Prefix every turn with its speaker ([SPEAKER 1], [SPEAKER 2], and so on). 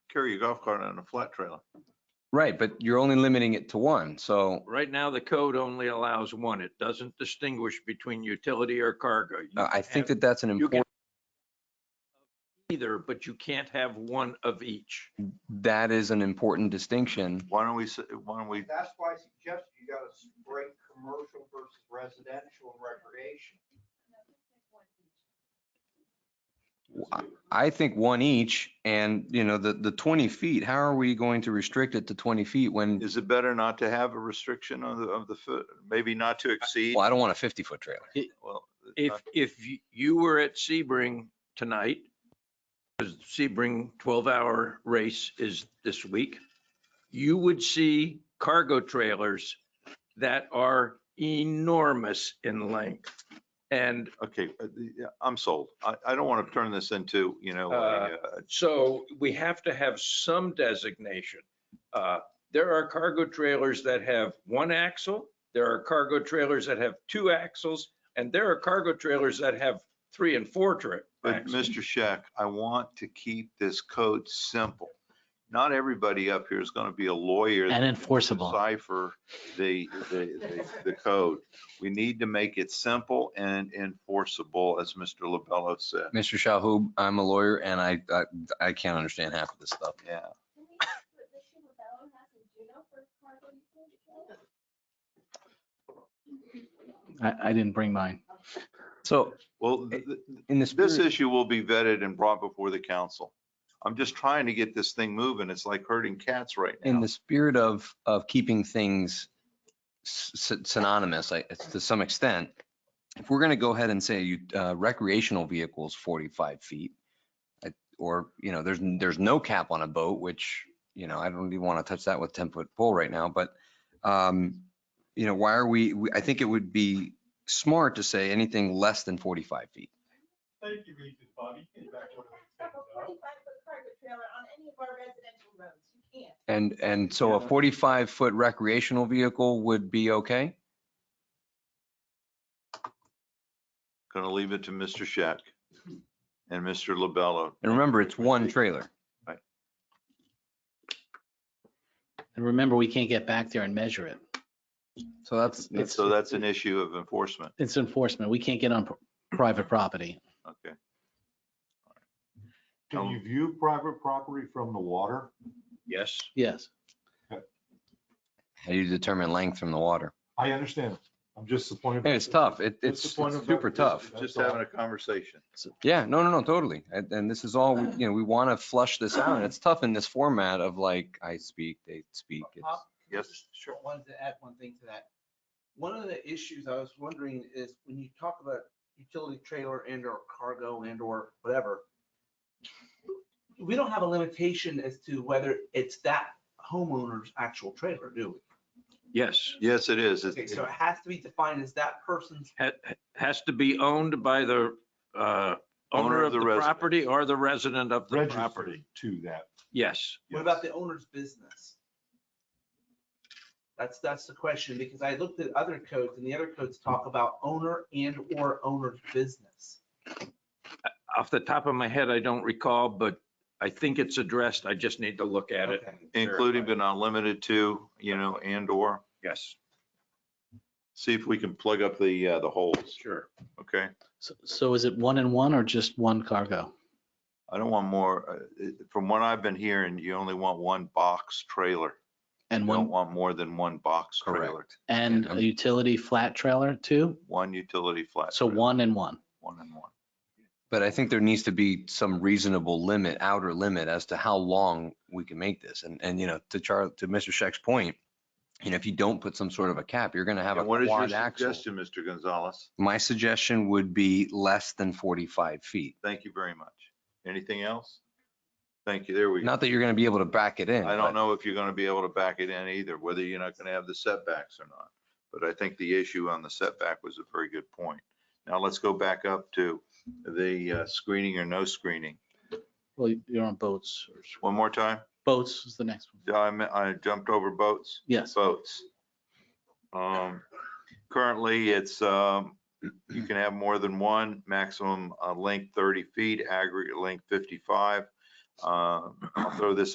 [SPEAKER 1] carry your golf cart on a flat trailer.
[SPEAKER 2] Right, but you're only limiting it to one, so
[SPEAKER 3] Right now, the code only allows one. It doesn't distinguish between utility or cargo. You
[SPEAKER 2] uh, I
[SPEAKER 3] can
[SPEAKER 2] think
[SPEAKER 3] have
[SPEAKER 2] that that's an
[SPEAKER 3] you can-
[SPEAKER 2] important,
[SPEAKER 3] Either, but you can't have one of each.
[SPEAKER 2] Uh, that is an important distinction.
[SPEAKER 1] Why don't we, s- why don't we,
[SPEAKER 4] That's why I suggested you gotta break commercial versus residential and recreation.
[SPEAKER 5] Um,
[SPEAKER 2] I think one each and, you know, the, the 20 feet, how are we going to restrict it to 20 feet when,
[SPEAKER 1] is it better not to have a restriction on the, of the foot, maybe not to exceed? Uh,
[SPEAKER 2] well, I don't want a 50 foot trailer.
[SPEAKER 1] Well,
[SPEAKER 3] If,
[SPEAKER 1] not-
[SPEAKER 3] if y- you were at Sebring tonight, because Sebring 12-hour race is this week, you would see cargo trailers that are enormous in length. And
[SPEAKER 1] Okay, uh, the- yeah, I'm sold. I, I don't want to turn this into, you know, a, uh,
[SPEAKER 3] So we have to have some designation. Uh, There are cargo trailers that have one axle, there are cargo trailers that have two axles, and there are cargo trailers that have three and four tra-
[SPEAKER 1] But
[SPEAKER 3] axles.
[SPEAKER 1] Mr. Scheck, I want to keep this code simple. Not everybody up here is going to be a lawyer.
[SPEAKER 6] And enforceable.
[SPEAKER 1] Cipher the, the, the- the code. We need to make it simple and enforceable, as Mr. Lobello said.
[SPEAKER 2] Mr. Shahub, I'm a lawyer and I, I, I can't understand half of this stuff.
[SPEAKER 1] Yeah.
[SPEAKER 5] Can we ask what the Shimabella has in Juneau for cargo utility trailer?
[SPEAKER 6] I, I didn't bring mine.
[SPEAKER 2] So
[SPEAKER 1] Well, th- th-
[SPEAKER 2] in the
[SPEAKER 1] this
[SPEAKER 2] spirit,
[SPEAKER 1] issue will be vetted and brought before the council. I'm just trying to get this thing moving. It's like herding cats right
[SPEAKER 2] in
[SPEAKER 1] now.
[SPEAKER 2] the spirit of, of keeping things s- s- synonymous, I- it's to some extent, if we're going to go ahead and say you- uh, recreational vehicles 45 feet, I- or, you know, there's, n- there's no cap on a boat, which, you know, I don't even want to touch that with 10 foot pole right now, but, um, you know, why are we, we- I think it would be smart to say anything less than 45 feet.
[SPEAKER 7] Thank you, Regent Bobby. Get back
[SPEAKER 5] You
[SPEAKER 7] on
[SPEAKER 5] can't have a
[SPEAKER 7] the-
[SPEAKER 5] forty-five foot cargo trailer on any of our residential roads. You can't.
[SPEAKER 2] And, and so a
[SPEAKER 7] Yeah.
[SPEAKER 2] 45 foot recreational vehicle would be okay?
[SPEAKER 1] Going to leave it to Mr. Scheck and Mr. Lobello.
[SPEAKER 2] And remember, it's one trailer.
[SPEAKER 6] And remember, we can't get back there and measure it.
[SPEAKER 2] So that's,
[SPEAKER 1] And
[SPEAKER 6] It's-
[SPEAKER 1] So that's an issue of enforcement.
[SPEAKER 6] It's enforcement. We can't get on pr- private property.
[SPEAKER 1] Okay,
[SPEAKER 7] Can you view private property from the water?
[SPEAKER 3] Yes,
[SPEAKER 6] Yes.
[SPEAKER 2] how do you determine length from the water?
[SPEAKER 7] I understand. I'm just disappointed.
[SPEAKER 2] It's tough. It,
[SPEAKER 7] What's
[SPEAKER 2] it's
[SPEAKER 7] the
[SPEAKER 2] it's
[SPEAKER 7] point of
[SPEAKER 2] super
[SPEAKER 7] that?
[SPEAKER 2] tough.
[SPEAKER 1] just having a conversation.
[SPEAKER 2] Yeah, no, no, no, totally. And, and this is all,
[SPEAKER 1] Uh.
[SPEAKER 2] we- you know, we want to flush this out. And it's tough in this format of like, I speak, they speak. It's-
[SPEAKER 1] Yes.
[SPEAKER 8] Sure, wanted to add one thing to that. One of the issues I was wondering is when you talk about utility trailer and or cargo and or whatever, we don't have a limitation as to whether it's that homeowner's actual trailer, do
[SPEAKER 3] yes.
[SPEAKER 1] Yes, it is.
[SPEAKER 8] we?
[SPEAKER 1] It's-
[SPEAKER 8] Okay, so it has to be defined as that person's,
[SPEAKER 3] Ha- Has to be owned by the uh, owner of the
[SPEAKER 1] resident.
[SPEAKER 3] property or the resident of the property.
[SPEAKER 7] Registered to that.
[SPEAKER 3] Yes.
[SPEAKER 8] what about the owner's business? That's, that's the question, because I looked at other codes and the other codes talk about owner and or owner's business.
[SPEAKER 3] Off the top of my head, I don't recall, but I think it's addressed. I just need to look at it.
[SPEAKER 8] Okay.
[SPEAKER 1] Including but not limited to, you know, and/or,
[SPEAKER 3] Yes,
[SPEAKER 1] see if we can plug up the, uh, the holes,
[SPEAKER 3] sure.
[SPEAKER 1] okay?
[SPEAKER 6] So- So is it one and one or just one cargo?
[SPEAKER 1] I don't want more, uh, it- from what I've been hearing, you only want one box trailer.
[SPEAKER 6] And
[SPEAKER 1] You don't
[SPEAKER 6] one,
[SPEAKER 1] want more than one box trailer,
[SPEAKER 2] Correct.
[SPEAKER 6] and a utility flat trailer too?
[SPEAKER 1] one utility flat.
[SPEAKER 6] So
[SPEAKER 1] trailer,
[SPEAKER 6] one and one.
[SPEAKER 1] One and one.
[SPEAKER 2] But I think there needs to be some reasonable limit, outer limit as to how long we can make this. And, and, you know, to Char, to Mr. Scheck's point, you know, if you don't put some sort of a cap, you're going to have a
[SPEAKER 1] And what is your
[SPEAKER 2] quad axle.
[SPEAKER 1] suggestion, Mr. Gonzalez?
[SPEAKER 2] My suggestion would be less than 45 feet.
[SPEAKER 1] Thank you very much. Anything else? Thank you, there we go.
[SPEAKER 2] Not that you're going to be able to back it in.
[SPEAKER 1] I
[SPEAKER 2] but-
[SPEAKER 1] don't know if you're gonna be able to back it in either, whether you're not gonna have the setbacks or not. But I think the issue on the setback was a very good point. Now let's go back up to the uh, screening or no screening.
[SPEAKER 6] Well, you're on boats. or-
[SPEAKER 1] One more time.
[SPEAKER 6] Boats is the next one.
[SPEAKER 1] Did I, I jumped over boats,
[SPEAKER 6] Yes.
[SPEAKER 1] boats. Um, currently, it's, um, you can have more than one, maximum uh, length thirty feet, aggregate length fifty-five. Uh, I'll throw this